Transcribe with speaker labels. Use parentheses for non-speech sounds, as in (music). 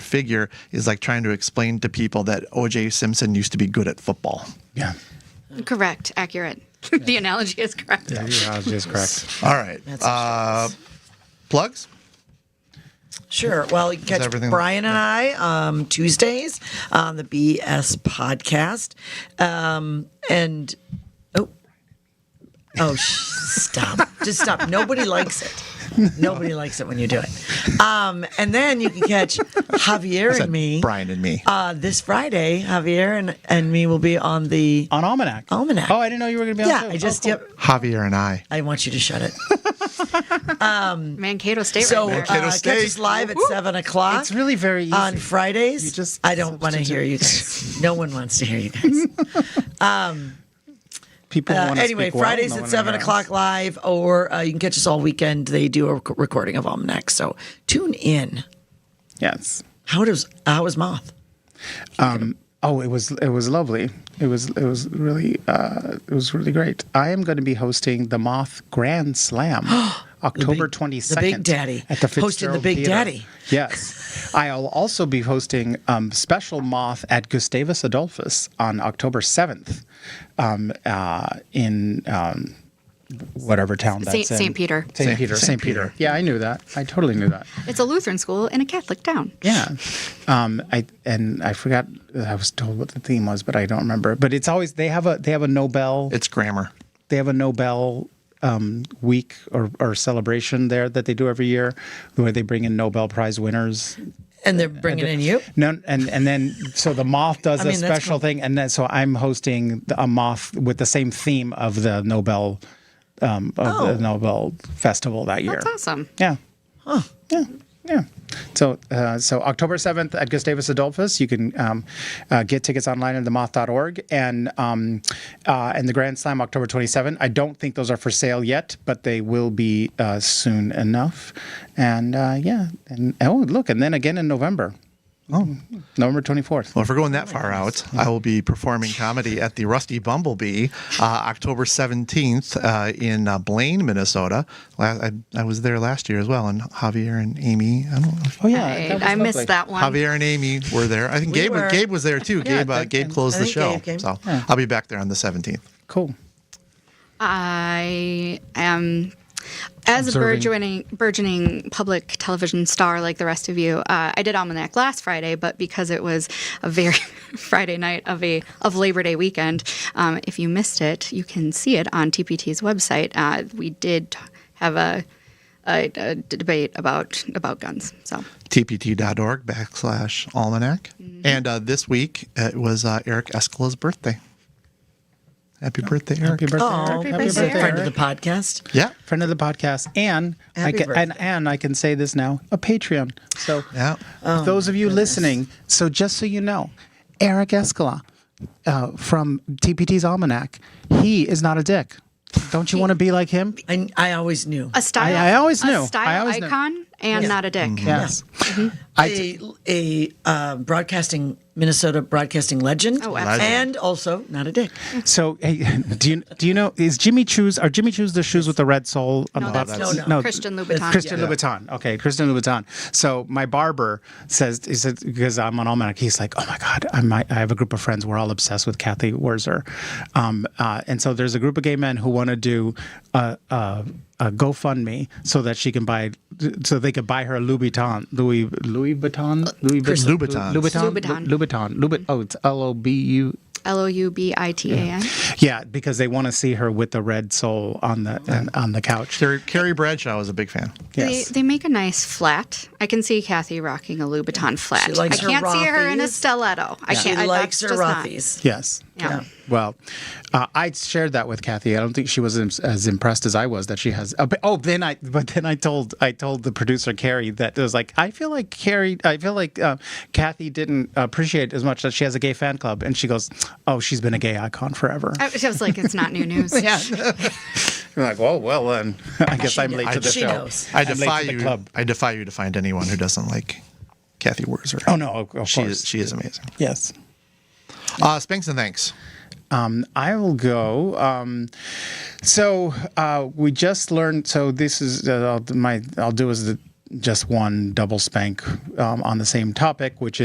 Speaker 1: figure is like trying to explain to people that OJ Simpson used to be good at football.
Speaker 2: Yeah.
Speaker 3: Correct. Accurate. the analogy is correct.
Speaker 2: Yeah, your analogy is correct.
Speaker 1: All right. Uh, plugs?
Speaker 4: Sure. Well, you can catch
Speaker 1: everything-
Speaker 4: Brian and I um, Tuesdays on the BS podcast. Um, and oh, oh, sh- stop! Just stop. Nobody likes it. Nobody likes it when you do it. Um, and then you can catch Javier
Speaker 1: Said
Speaker 4: and me.
Speaker 1: Brian and me.
Speaker 4: Uh, this Friday, Javier and, and me will be on the.
Speaker 2: On Almanac.
Speaker 4: Almanac.
Speaker 2: Oh, I didn't know you were going to be on
Speaker 4: yeah,
Speaker 2: too.
Speaker 4: I just
Speaker 2: Oh, cool.
Speaker 4: yep.
Speaker 1: Javier and I.
Speaker 4: I want you to
Speaker 2: (laughs)
Speaker 4: shut it.
Speaker 3: Mankato State
Speaker 4: So
Speaker 3: right
Speaker 1: Mankato
Speaker 3: there.
Speaker 4: uh, catch
Speaker 1: State.
Speaker 4: us live at seven o'clock.
Speaker 2: It's really very easy.
Speaker 4: on Fridays.
Speaker 2: You just
Speaker 4: I don't want to hear you
Speaker 2: (laughs)
Speaker 4: guys. No one wants to hear you guys.
Speaker 2: People
Speaker 4: Uh,
Speaker 2: want to
Speaker 4: anyway,
Speaker 2: speak well,
Speaker 4: Fridays
Speaker 2: no
Speaker 4: at
Speaker 2: one
Speaker 4: seven
Speaker 2: else.
Speaker 4: o'clock live, or uh, you can catch us all weekend. They do a rec- recording of Almanac, so tune in.
Speaker 2: Yes.
Speaker 4: How does how is Moth?
Speaker 2: Oh, it was it was lovely. It was it was really uh, it was really great. I am going to be hosting the Moth Grand
Speaker 4: (gasps)
Speaker 2: Slam, October
Speaker 4: big-
Speaker 2: twenty
Speaker 4: the
Speaker 2: second.
Speaker 4: Big Daddy.
Speaker 2: at the
Speaker 4: Hosting the
Speaker 2: Fitzgerald
Speaker 4: Big
Speaker 2: Theater.
Speaker 4: Daddy.
Speaker 2: Yes, I'll also be hosting um, special Moth at Gustavus Adolphus on October seventh, um, uh, in um, whatever town that's
Speaker 3: Saint-
Speaker 2: in.
Speaker 3: Saint Peter.
Speaker 2: Saint
Speaker 1: Saint-
Speaker 2: Peter.
Speaker 1: Saint
Speaker 2: Saint Peter.
Speaker 1: Peter.
Speaker 2: Yeah, I knew that. I totally knew that.
Speaker 3: It's a Lutheran school in a Catholic town.
Speaker 2: Yeah. Um, I and I forgot I was told what the theme was, but I don't remember. But it's always they have a they have a Nobel
Speaker 1: It's grammar.
Speaker 2: they have a Nobel um, week or, or celebration there that they do every year where they bring in Nobel Prize winners.
Speaker 4: And they're bringing in you.
Speaker 2: No, and and then so the
Speaker 4: (laughs)
Speaker 2: moth does
Speaker 4: I
Speaker 2: a
Speaker 4: mean, that's
Speaker 2: special
Speaker 4: cool.
Speaker 2: thing, and then so I'm hosting the- a moth with the same theme of the Nobel um, of
Speaker 4: Oh.
Speaker 2: the Nobel Festival that year.
Speaker 3: That's awesome.
Speaker 2: Yeah. Yeah. Yeah. So, uh, so October 7th at Gustavus Adolphus, you can um, uh, get tickets online at themoth.org and, um, uh, and the Grand Slam October 27th. I don't think those are for sale yet, but they will be uh, soon enough. And uh, yeah. And oh, look. And then again in November. Oh, November 24th.
Speaker 1: Well, if we're going
Speaker 4: Oh
Speaker 1: that far out, I will be performing comedy at the Rusty Bumblebee uh, October 17th uh, in uh, Blaine, Minnesota. La- I, I was there last year as well, and Javier and Amy. I don't know.
Speaker 2: Oh, yeah.
Speaker 3: Right.
Speaker 2: that was
Speaker 3: I
Speaker 2: lovely.
Speaker 3: missed that one.
Speaker 1: Javier and Amy were there. I think
Speaker 4: We
Speaker 1: Gabe
Speaker 4: were.
Speaker 1: Gabe was there
Speaker 4: (laughs)
Speaker 1: too. Gabe uh,
Speaker 2: think-
Speaker 1: Gabe closed
Speaker 4: I
Speaker 1: the
Speaker 4: think
Speaker 1: show,
Speaker 4: Gabe came.
Speaker 1: so I'll be back there on the 17th.
Speaker 2: Cool.
Speaker 3: I am, as
Speaker 2: Observing.
Speaker 3: a burgeoning, burgeoning public television star like the rest of you, uh, I did Almanac last Friday, but because it was a very (laughs) Friday night of a of Labor Day weekend, um, if you missed it, you can see it on TPT's website. Uh, we did t- have a, a, a d- debate about about guns, so
Speaker 1: tpt.org backslash almanac. And uh, this week uh, it was uh, Eric Escala's birthday. Happy birthday, Eric.
Speaker 2: Happy birthday.
Speaker 4: Oh,
Speaker 2: Eric. Happy
Speaker 4: he's a
Speaker 2: birthday.
Speaker 4: friend of
Speaker 2: Eric.
Speaker 4: the podcast.
Speaker 1: Yeah.
Speaker 2: friend of the podcast, and I
Speaker 4: Happy
Speaker 2: can,
Speaker 4: birthday.
Speaker 2: and, and I can say this now, a Patreon. So
Speaker 1: Yeah.
Speaker 2: those of you listening, so just so you know, Eric Escala uh, from TPT's Almanac, he is not a dick. Don't you want to be like him?
Speaker 4: I, I always knew.
Speaker 3: a style.
Speaker 2: I always knew. I
Speaker 3: A style
Speaker 2: always knew. Mm-hmm.
Speaker 3: icon and not a dick.
Speaker 2: Yes.
Speaker 4: a a uh, broadcasting Minnesota broadcasting legend.
Speaker 3: Oh, absolutely.
Speaker 4: and also not a dick.
Speaker 2: (laughs) So hey, do you do you know is Jimmy Choo's are Jimmy Choo's the shoes with the red sole on
Speaker 3: No,
Speaker 2: the
Speaker 3: that's-
Speaker 2: bottom?
Speaker 4: no, no.
Speaker 3: Christian Louboutin.
Speaker 2: Christian
Speaker 4: Yeah.
Speaker 2: Louboutin. Okay, Christian Louboutin. So my barber says, he said, because I'm on Almanac, he's like, oh my God, I might, I have a group of friends. We're all obsessed with Kathy Werzer. Um, uh, and so there's a group of gay men who want to do a, a, a GoFundMe so that she can buy, so they could buy her a Louboutin. Louis, Louis Vuitton? Louis Vu-
Speaker 1: Christian.
Speaker 2: Louboutin.
Speaker 1: Louboutins.
Speaker 2: Louboutin. Louboutin. Louboutin. Oh, it's L O B U.
Speaker 3: L o u b i t a n.
Speaker 2: Yeah, because they want to see her with the red sole on the on the couch.
Speaker 1: Carrie, Carrie Bradshaw was a big fan.
Speaker 2: Yes.
Speaker 3: They, they make a nice flat. I can see Kathy rocking a Louboutin flat.
Speaker 4: She likes
Speaker 3: I
Speaker 4: her
Speaker 3: can't see her in a
Speaker 4: Rothy's.
Speaker 3: stiletto. I
Speaker 4: She
Speaker 3: can't. I,
Speaker 4: likes her
Speaker 3: that's just not-
Speaker 4: Rothies.
Speaker 2: Yes.
Speaker 3: Yeah.
Speaker 2: Well, uh, I shared that with Kathy. I don't think she was im- as impressed as I was that she has. Oh, but- oh, then I, but then I told I told the producer Carrie that it was like I feel like Carrie, I feel like uh, Kathy didn't appreciate as much that she has a gay fan club, and she goes, "Oh, she's been a gay icon forever."
Speaker 3: I was- I was like, it's
Speaker 2: (laughs)
Speaker 3: not new news.
Speaker 2: I'm like, "Well, well, then (laughs) I guess
Speaker 4: She
Speaker 2: I'm late
Speaker 4: knows.
Speaker 2: to the
Speaker 4: She
Speaker 2: show."
Speaker 4: knows.
Speaker 1: I
Speaker 2: I'm late
Speaker 1: defy
Speaker 2: to the
Speaker 1: you.
Speaker 2: club.
Speaker 1: I defy you to find anyone who doesn't like Kathy Werzer.
Speaker 2: Oh no, of, of
Speaker 1: she
Speaker 2: course.
Speaker 1: is, she is amazing.
Speaker 2: yes.
Speaker 1: Uh, Spanks and thanks.
Speaker 2: Um, I will go. Um, so uh, we just learned. So this is uh, I'll, my. I'll do as the just one double spank um, on the same topic, which